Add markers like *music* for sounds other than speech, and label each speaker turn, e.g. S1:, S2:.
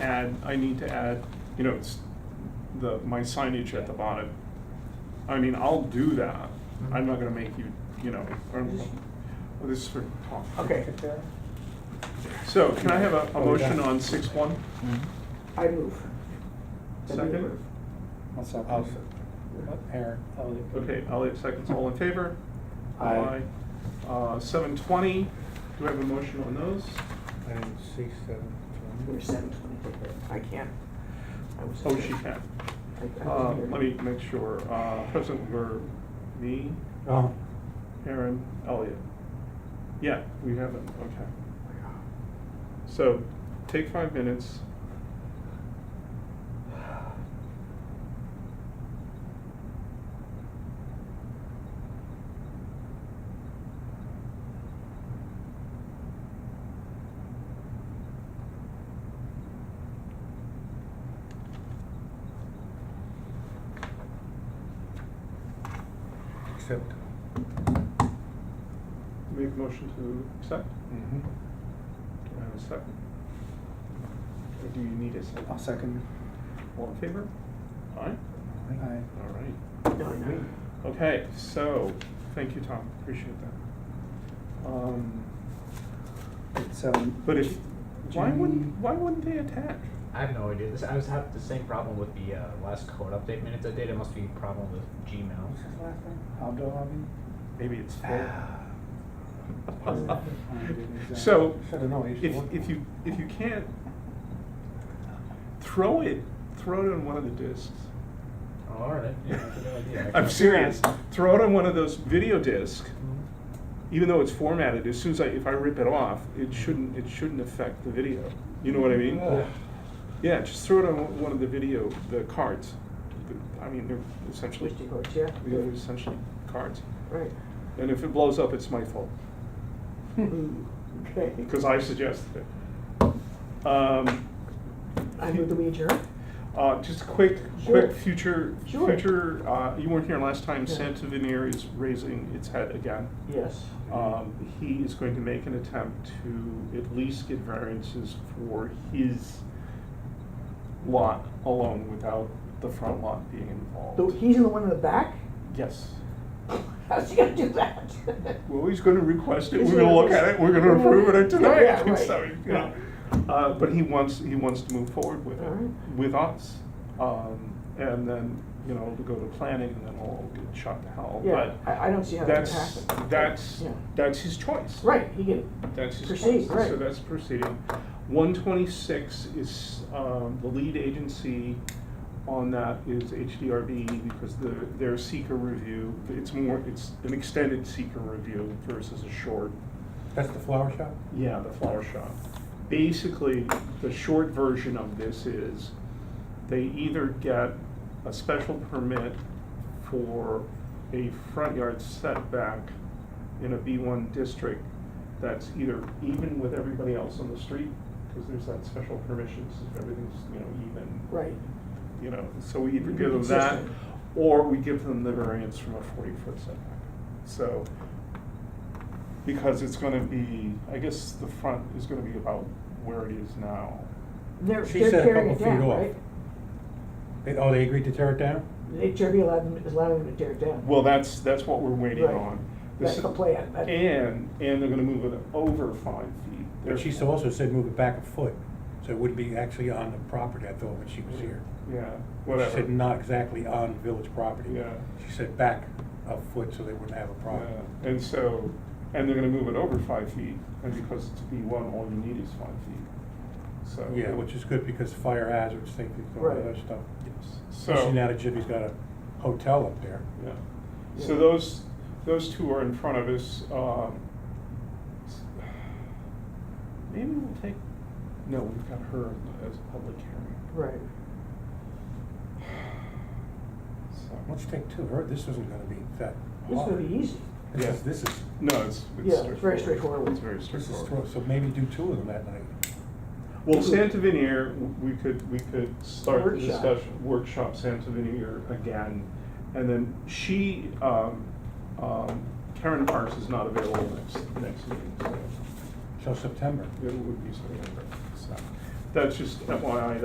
S1: add, I need to add, you know, it's the, my signage at the bottom. I mean, I'll do that,
S2: Mm-hmm.
S1: I'm not gonna make you, you know, or, well, this is for Tom.
S2: Okay, Oh,
S1: So can I have a, a motion on six one?
S2: I move. That we
S1: Second?
S2: approve.
S3: I'll second.
S4: I'll second.
S3: Uh, Aaron, Elliot.
S1: Okay, um, Elliot seconds, all in favor?
S3: Aye.
S1: Aye. Uh, seven twenty, do I have a motion on those?
S4: I didn't see seven.
S2: We're seven twenty-three. I can't. I was-
S1: Oh, she can.
S2: I- I
S1: Uh,
S2: was here.
S1: let me make sure, uh, President were me,
S4: Oh,
S1: Aaron, Elliot. Yeah, we have it, okay. So, take five minutes.
S4: except.
S1: Make a motion to accept.
S4: Mhm.
S1: Do I have a second? Or do you need a second?
S3: I'll second.
S1: All in favor? Aye?
S3: Aye.
S1: All right.
S2: No, I know.
S1: Okay, so, thank you, Tom, appreciate that. Um,
S3: It's, um.
S1: But if, why wouldn't,
S3: Jimmy-
S1: why wouldn't they attach?
S5: I have no idea. This, I was having the same problem with the uh, last code update minutes I did. It must be a problem with Gmail.
S3: What's his last name? Abdul
S1: Maybe it's full.
S3: Abi?
S1: So,
S4: Should've known, he used to
S1: if,
S4: work
S1: if
S4: there.
S1: you, if you can't, throw it, throw it on one of the discs.
S5: Oh, all right. Yeah, I have no idea.
S1: I'm serious, throw it on one of those video discs,
S5: Mhm.
S1: even though it's formatted, as soon as I, if I rip it off, it shouldn't, it shouldn't affect the video. You know what I mean?
S4: Ugh.
S1: Yeah, just throw it on one of the video, the cards. I mean, they're essentially,
S2: Which you yeah.
S1: they're essentially cards.
S2: Right.
S1: *laughs* And if it blows up, it's my fault,
S2: Mm, Okay.
S1: because I suggested it. Um,
S2: I move the wager.
S1: uh, just quick,
S2: Sure.
S1: quick future,
S2: Sure.
S1: future, uh, you weren't here last time,
S2: Yeah.
S1: Santa Veneer is raising its head again.
S2: Yes.
S1: Um, he is going to make an attempt to at least get variances for his lot alone without the front lot being involved.
S2: So he's the one in the back? *laughs*
S1: Yes.
S2: How's he gonna do that?
S1: Well, he's gonna request it,
S2: He's
S1: we're gonna
S2: gonna
S1: look at it, we're gonna
S2: request-
S1: approve it
S2: Yeah,
S1: tonight, *laughs*
S2: right.
S1: so, you know. Uh, but he wants, he wants to move forward with it,
S2: Alright.
S1: with us. Um, and then, you know, it'll go to planning and then all get shot to hell,
S2: Yeah,
S1: but
S2: I, I don't see how that could
S1: that's,
S2: happen.
S1: that's,
S2: Yeah.
S1: that's his choice.
S2: Right, he can,
S1: That's his
S2: Proceed,
S1: choice,
S2: right.
S1: so that's proceeding. One twenty-six is, um, the lead agency on that is HDRB because the, their seeker review, it's more, it's an extended seeker review versus a short.
S4: That's the flower shop?
S1: Yeah, the flower shop. Basically, the short version of this is they either get a special permit for a front yard setback in a B one district that's either even with everybody else on the street, because there's that special permission, so everything's, you know, even.
S2: right.
S1: You know, so we either give them that,
S2: Consistent.
S1: or we give them the variance from a forty-foot setback. So, because it's gonna be, I guess the front is gonna be about where it is now.
S2: They're,
S4: She
S2: they're
S4: said a
S2: tearing it
S4: couple feet
S2: down,
S4: off.
S2: right?
S4: They, oh, they agreed to tear it down?
S2: HRB allowed them, is allowing them to tear it down.
S1: Well, that's, that's what we're waiting
S2: Right.
S1: on.
S2: That's
S1: This-
S2: the plan, that-
S1: And, and they're gonna move it over five feet.
S4: But she
S1: They're-
S4: also said move it back a foot, so it wouldn't be actually on the property, I thought, when she was here.
S1: Yeah, whatever.
S4: She said not exactly on village property.
S1: Yeah.
S4: She said back a foot so they wouldn't have a problem.
S1: Yeah, And so, and they're gonna move it over five feet, and because it's B one, all you need is five feet, so.
S4: Yeah, which is good because fire hazards, safety, all that
S2: Right.
S4: other stuff.
S1: Yes.
S4: Especially now
S1: So,
S4: that Jimmy's got a hotel up there.
S1: yeah, so those, those two are in front of us, um. s- Maybe we'll take, no, we've got her as a public hearing,
S2: Right.
S1: so.
S4: Let's take two, her, this isn't gonna be that
S2: This is
S4: hard.
S2: gonna be easy.
S4: This is,
S1: Yeah.
S4: this is,
S1: No, it's, it's
S2: Yeah, it's very straightforward.
S1: It's very
S4: this is,
S1: straightforward.
S4: throw- so maybe do two of them that night.
S1: Well, Santa Veneer, we could, we could start the
S2: Workshop.
S1: discussion, workshop Santa Veneer again. And then she, um, um, Karen Parks is not available next, next meeting, so
S4: Till September.
S1: it would be September. So That's just FYI,